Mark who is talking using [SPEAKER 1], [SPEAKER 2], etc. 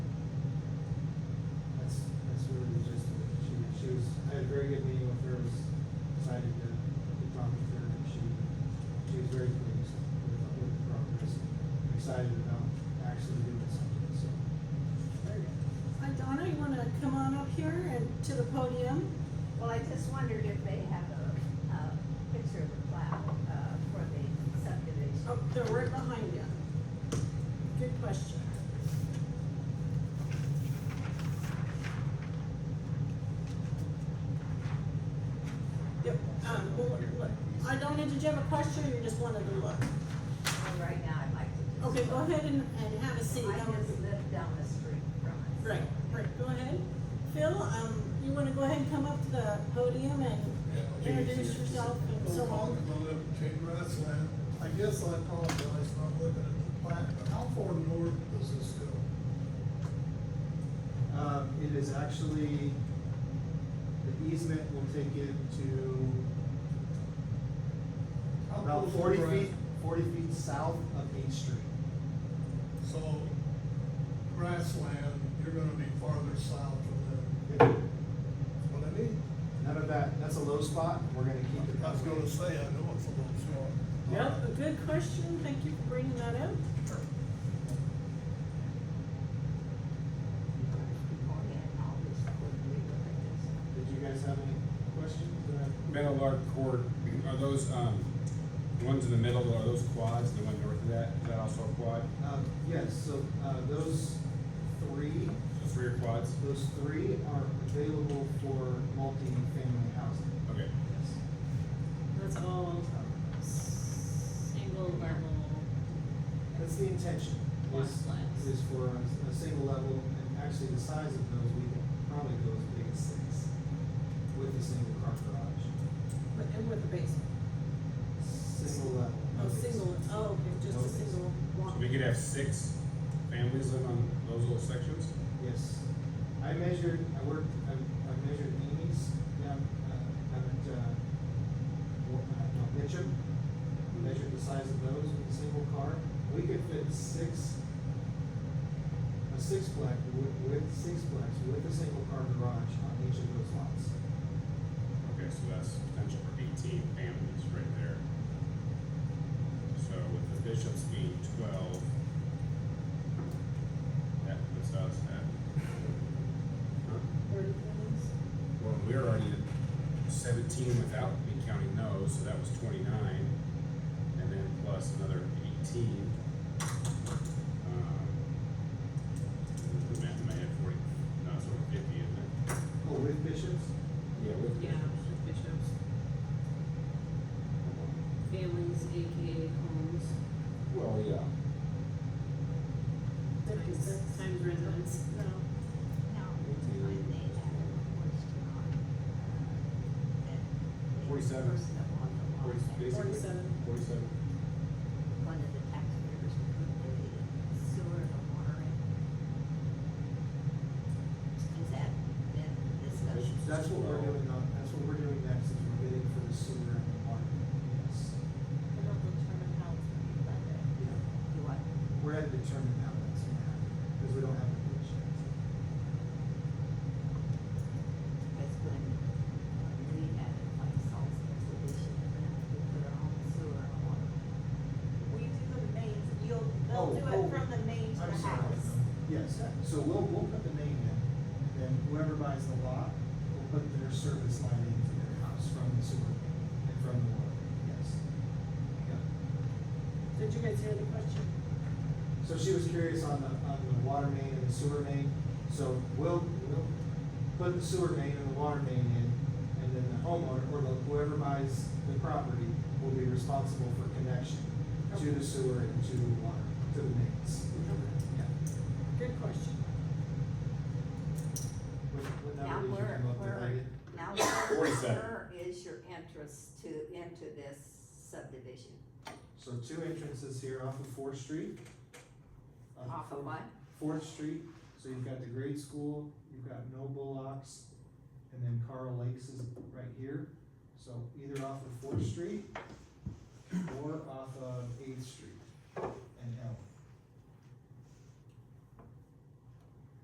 [SPEAKER 1] come on up here and to the podium.
[SPEAKER 2] Well, I just wondered if they have a, a picture of the plow, uh, for the subdivision.
[SPEAKER 1] Oh, they're right behind you. Good question. Yep, um, well, look, look. I don't, did you have a question or you just wanted to look?
[SPEAKER 2] And right now, I'd like to.
[SPEAKER 1] Okay, go ahead and, and have a seat.
[SPEAKER 2] I
[SPEAKER 1] That would
[SPEAKER 2] just
[SPEAKER 1] be-
[SPEAKER 2] live down the street from it.
[SPEAKER 1] Right, right, go ahead. Phil, um, you wanna go ahead and come up to the podium and introduce yourself and so on?
[SPEAKER 3] I guess I apologize for not looking at the plat, but how far north does this go?
[SPEAKER 4] Um, it is actually, the easement will take it to
[SPEAKER 3] How
[SPEAKER 4] about
[SPEAKER 3] close to
[SPEAKER 4] forty
[SPEAKER 3] Brad-
[SPEAKER 4] feet, forty feet south of Eighth Street.
[SPEAKER 3] So grassland, you're gonna be farther south of that, what I mean?
[SPEAKER 4] None of that, that's a low spot, we're gonna keep it.
[SPEAKER 3] I was
[SPEAKER 4] that way.
[SPEAKER 3] gonna say, I know it's a little short.
[SPEAKER 1] Yep, a good question. Thank you for bringing that up.
[SPEAKER 2] And all this quickly, look at this.
[SPEAKER 4] Did you guys have any questions? Go ahead.
[SPEAKER 5] Meadowlark Court, are those, um, the ones in the middle, are those quads, the one north of that, is that also a quad?
[SPEAKER 4] Um, yes, so, uh, those three,
[SPEAKER 5] So three are quads?
[SPEAKER 4] those three are available for multi-family housing.
[SPEAKER 5] Okay,
[SPEAKER 4] Yes.
[SPEAKER 6] That's all single level.
[SPEAKER 4] That's the intention,
[SPEAKER 6] Lot
[SPEAKER 4] is,
[SPEAKER 6] size.
[SPEAKER 4] is for a, a single level, and actually the size of those, we can probably go as big as six with a single car garage,
[SPEAKER 1] But, and with the basement.
[SPEAKER 4] single level. no
[SPEAKER 1] Oh,
[SPEAKER 4] basement.
[SPEAKER 1] single, oh, okay, just a single
[SPEAKER 5] so
[SPEAKER 1] one.
[SPEAKER 5] we could have six families live on those little sections?
[SPEAKER 4] Yes. I measured, I worked, I, I measured Amy's, down, uh, down at, uh, Wa- uh, no, Mitcham. Measured the size of those with a single car. We could fit six, a sixplex, with, with sixplex, with a single car garage on each of those lots.
[SPEAKER 5] Okay, so that's potential for eighteen families right there. So with the bishops being twelve, that puts us at, huh?
[SPEAKER 1] Thirty families.
[SPEAKER 5] well, we're already at seventeen without me counting those, so that was twenty-nine, and then plus another eighteen. Um, the math in my head, forty, no, it's over fifty, isn't it?
[SPEAKER 4] Oh, with bishops?
[SPEAKER 5] Yeah, with
[SPEAKER 6] Yeah,
[SPEAKER 5] bishops.
[SPEAKER 6] bishops, families, AKA homes,
[SPEAKER 5] Well, yeah.
[SPEAKER 6] times, times residence.
[SPEAKER 1] No.
[SPEAKER 2] Now,
[SPEAKER 5] Me too.
[SPEAKER 2] I made that a question on, uh, that the
[SPEAKER 5] Forty-seven.
[SPEAKER 2] person that bought the lot,
[SPEAKER 5] Forty-
[SPEAKER 2] that
[SPEAKER 5] basically,
[SPEAKER 1] Forty-seven.
[SPEAKER 5] Forty-seven.
[SPEAKER 2] One of the taxpayers put the sewer and the water in. Is that, that discussion?
[SPEAKER 4] That's what we're doing on, that's what we're doing next, is we're bidding for the sewer and the water. Yes.
[SPEAKER 2] We don't determine how it's gonna be funded. Do what?
[SPEAKER 4] We're at the determine how that's gonna happen, because we don't have a bid yet.
[SPEAKER 2] Because when uh, we had it like Salt's Reservation, and we put our own sewer and water. We do the mains, you'll,
[SPEAKER 4] Oh,
[SPEAKER 2] they'll do
[SPEAKER 4] oh,
[SPEAKER 2] it from the main to
[SPEAKER 4] I'm
[SPEAKER 2] the
[SPEAKER 4] sorry.
[SPEAKER 2] house.
[SPEAKER 4] Yes, so we'll, we'll put the name in, and then whoever buys the lot, will put their service line into their house from the sewer and from the water, yes. Yeah.
[SPEAKER 1] Did you guys hear the question?
[SPEAKER 4] So she was curious on the, on the water main and the sewer main, so we'll, we'll put the sewer main and the water main in, and then the homeowner, or the- whoever buys the property will be responsible for connection to the sewer and to the water, to the mains. Yeah.
[SPEAKER 1] Good question.
[SPEAKER 4] What- what
[SPEAKER 2] Now
[SPEAKER 4] number did you
[SPEAKER 2] where,
[SPEAKER 4] come up with? I
[SPEAKER 2] where,
[SPEAKER 4] didn't-
[SPEAKER 2] now where,
[SPEAKER 5] Forty-seven.
[SPEAKER 2] where is your entrance to, into this subdivision?
[SPEAKER 4] So two entrances here off of Fourth Street. Uh,
[SPEAKER 2] Off of
[SPEAKER 4] from
[SPEAKER 2] what?
[SPEAKER 4] Fourth Street, so you've got the grade school, you've got Noble Locks, and then Carl Lakes is right here. So either off of Fourth Street or off of Eighth Street and Elm.